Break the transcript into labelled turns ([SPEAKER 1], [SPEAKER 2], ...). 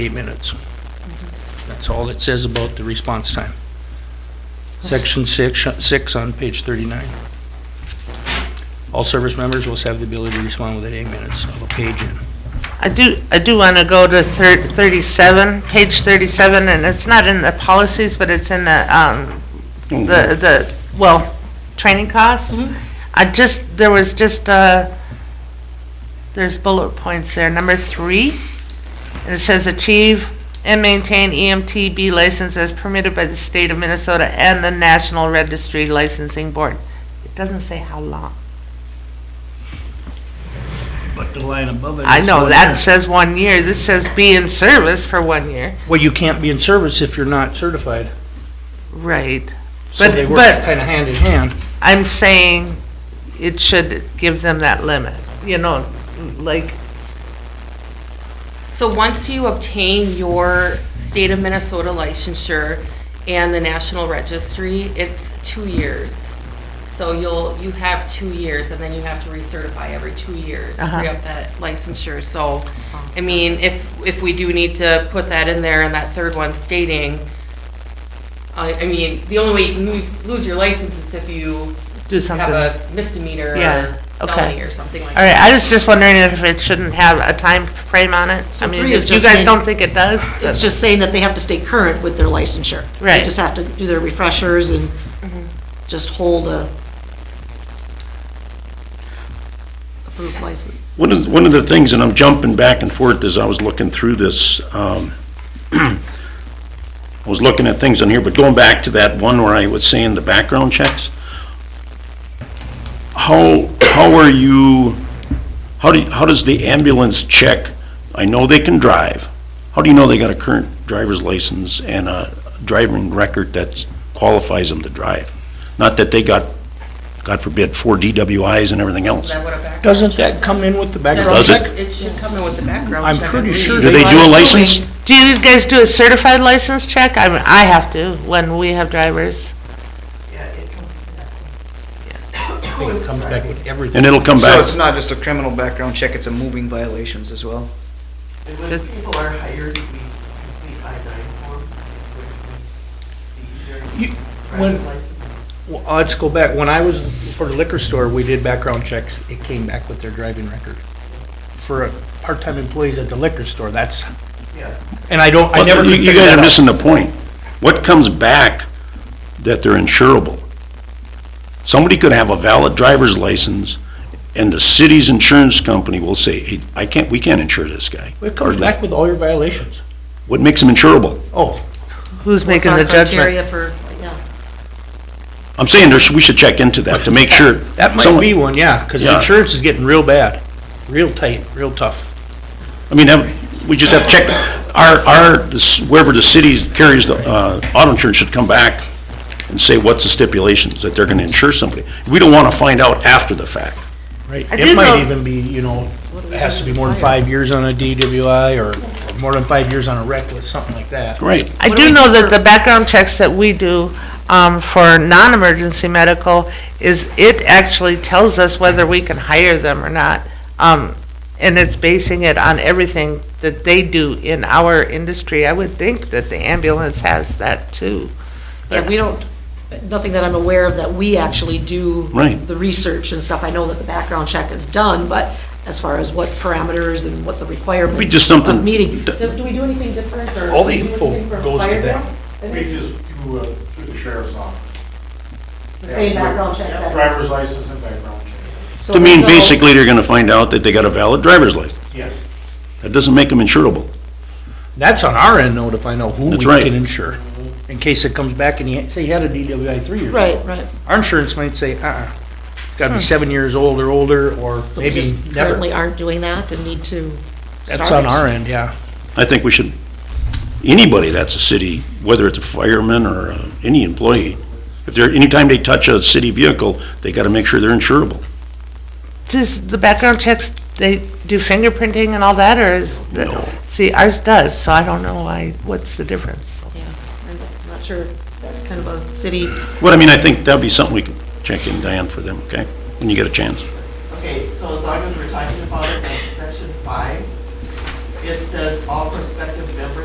[SPEAKER 1] eight minutes. That's all it says about the response time. Section six, six on page thirty-nine. All service members will have the ability to respond within eight minutes of a page in.
[SPEAKER 2] I do, I do want to go to thir- 37, page 37, and it's not in the policies, but it's in the, um, the, the, well, training costs. I just, there was just, uh, there's bullet points there. Number three, and it says achieve and maintain E EMTB license as permitted by the state of Minnesota and the National Registry Licensing Board. It doesn't say how long.
[SPEAKER 3] But the line above it.
[SPEAKER 2] I
[SPEAKER 3] is
[SPEAKER 2] know,
[SPEAKER 3] one
[SPEAKER 2] that
[SPEAKER 3] year.
[SPEAKER 2] says one year. This says be in service for one year.
[SPEAKER 1] Well, you can't be in service if you're not certified,
[SPEAKER 2] Right.
[SPEAKER 1] so
[SPEAKER 2] But-
[SPEAKER 1] they work
[SPEAKER 2] but-
[SPEAKER 1] kind of hand in hand.
[SPEAKER 2] I'm saying it should give them that limit, you know, like,
[SPEAKER 4] So once you obtain your state of Minnesota licensure and the national registry, it's two years. So you'll, you have two years and then you have to recertify every two years, to
[SPEAKER 2] Uh-huh.
[SPEAKER 4] re up that licensure. So, I mean, if, if we do need to put that in there and that third one stating, I, I mean, the only way you can lose, lose your license is if you
[SPEAKER 2] do
[SPEAKER 4] have
[SPEAKER 2] something. All
[SPEAKER 4] a misdemeanor
[SPEAKER 2] Yeah,
[SPEAKER 4] or
[SPEAKER 2] okay.
[SPEAKER 4] felony or something like that.
[SPEAKER 2] right, I was just wondering if it shouldn't have a time frame on it. I
[SPEAKER 5] So
[SPEAKER 2] mean,
[SPEAKER 5] three
[SPEAKER 2] if
[SPEAKER 5] is
[SPEAKER 2] you
[SPEAKER 5] just
[SPEAKER 2] guys
[SPEAKER 5] saying-
[SPEAKER 2] don't think it does,
[SPEAKER 5] It's
[SPEAKER 2] then-
[SPEAKER 5] just saying that they have to stay current with their licensure.
[SPEAKER 2] Right. Mm-hmm.
[SPEAKER 5] They just have to do their refreshers and just hold a approved license.
[SPEAKER 6] One of, one of the things, and I'm jumping back and forth as I was looking through this, um, I was looking at things on here, but going back to that one where I was saying the background checks, how, how are you, how do, you- how does the ambulance check, I know they can drive, how do you know they got a current driver's license and a driving record that qualifies them to drive? Not that they got, God forbid, four DWIs and everything
[SPEAKER 4] Is
[SPEAKER 6] else.
[SPEAKER 4] that what a background
[SPEAKER 1] Doesn't
[SPEAKER 4] check-
[SPEAKER 1] that come in with the
[SPEAKER 4] That-
[SPEAKER 1] background
[SPEAKER 6] Does it?
[SPEAKER 1] check?
[SPEAKER 4] It should come in with the background
[SPEAKER 1] I'm
[SPEAKER 4] check. I
[SPEAKER 1] pretty
[SPEAKER 4] believe.
[SPEAKER 1] sure
[SPEAKER 6] Do they do a
[SPEAKER 1] I'm
[SPEAKER 6] license?
[SPEAKER 1] assuming-
[SPEAKER 2] do you guys do a certified license check? I, mean, I have to when we have drivers.
[SPEAKER 1] I think it comes back with everything.
[SPEAKER 6] And it'll come
[SPEAKER 7] So
[SPEAKER 6] back.
[SPEAKER 7] it's not just a criminal background check, it's a moving violations as well?
[SPEAKER 8] And when people are hired, we complete I-9 forms, which we
[SPEAKER 1] You-
[SPEAKER 8] see during
[SPEAKER 1] when-
[SPEAKER 8] driver's license.
[SPEAKER 1] Well, let's go back. When I was for the liquor store, we did background checks. It came back with their driving record. For uh, part-time employees at the liquor store, that's,
[SPEAKER 8] Yes.
[SPEAKER 1] and I don't, I
[SPEAKER 6] Well,
[SPEAKER 1] never
[SPEAKER 6] You
[SPEAKER 1] could
[SPEAKER 6] you
[SPEAKER 1] figure
[SPEAKER 6] guys
[SPEAKER 1] that
[SPEAKER 6] are
[SPEAKER 1] out.
[SPEAKER 6] missing the point. What comes back that they're insurable? Somebody could have a valid driver's license, and the city's insurance company will say, "Hey, I can't, we can't insure this guy.
[SPEAKER 1] It comes back with all your violations.
[SPEAKER 6] What makes him insurable?
[SPEAKER 1] Oh,
[SPEAKER 2] Who's
[SPEAKER 5] What's
[SPEAKER 2] making
[SPEAKER 5] our
[SPEAKER 2] the judgment?
[SPEAKER 5] criteria for, yeah.
[SPEAKER 6] I'm saying there's, we should check into that to make sure.
[SPEAKER 1] that might
[SPEAKER 6] Someone-
[SPEAKER 1] be one, yeah, because
[SPEAKER 6] Yeah.
[SPEAKER 1] insurance is getting real bad, real tight, real tough.
[SPEAKER 6] I mean, that- we just have to check, our, our, this- wherever the city carries the, uh, auto insurance should come back and say, what's the stipulations that they're gonna insure somebody? We don't wanna find out after the fact.
[SPEAKER 1] Right.
[SPEAKER 2] I
[SPEAKER 1] It
[SPEAKER 2] do
[SPEAKER 1] might
[SPEAKER 2] know-
[SPEAKER 1] even be, you know, it has to be more than five years on a DWI or more than five years on a reckless, something like that.
[SPEAKER 6] Right.
[SPEAKER 2] I do know that the background checks that we do um, for non-emergency medical is, it actually tells us whether we can hire them or not. Um, And it's basing it on everything that they do in our industry. I would think that the ambulance has that too.
[SPEAKER 5] Yeah, we don't, nothing that I'm aware of that we actually do.
[SPEAKER 6] Right.
[SPEAKER 5] The research and stuff. I know that the background check is done, but as far as what parameters and what the requirements.
[SPEAKER 6] Be just something-
[SPEAKER 5] Of meeting. Do do we do anything different or?
[SPEAKER 1] All the
[SPEAKER 5] do we do
[SPEAKER 1] info
[SPEAKER 5] anything for a
[SPEAKER 1] goes to
[SPEAKER 5] fire
[SPEAKER 1] that.
[SPEAKER 5] bill?
[SPEAKER 9] We just do uh, through the sheriff's office.
[SPEAKER 5] The same background check that.
[SPEAKER 9] Driver's license and background check.
[SPEAKER 5] So
[SPEAKER 6] To
[SPEAKER 5] there's
[SPEAKER 6] mean,
[SPEAKER 5] no-
[SPEAKER 6] basically, they're gonna find out that they got a valid driver's license.
[SPEAKER 9] Yes.
[SPEAKER 6] That doesn't make them insurable.
[SPEAKER 1] That's on our end though, to find out who we
[SPEAKER 6] That's right.
[SPEAKER 1] can insure. In case it comes back and you, say you had a DWI three years ago.
[SPEAKER 5] Right, right.
[SPEAKER 1] Our insurance might say, uh-uh, it's gotta be seven years old or older, or
[SPEAKER 5] So we
[SPEAKER 1] maybe
[SPEAKER 5] just currently
[SPEAKER 1] never.
[SPEAKER 5] aren't doing that and need to start.
[SPEAKER 1] That's on
[SPEAKER 5] it.
[SPEAKER 1] our end, yeah.
[SPEAKER 6] I think we should, anybody that's a city, whether it's a fireman or uh, any employee, if they're, anytime they touch a city vehicle, they gotta make sure they're insurable.
[SPEAKER 2] Does the background checks, they do fingerprinting and all that, or is? that-
[SPEAKER 6] No.
[SPEAKER 2] See, ours does, so I don't know why, what's the difference?
[SPEAKER 5] Yeah, I'm not sure, that's kind of a city.
[SPEAKER 6] But I mean, I think that'd be something we could check in, Diane, for them, okay? When you get a chance.
[SPEAKER 8] Okay, so as long as we're talking about it, that's section five. It says all prospective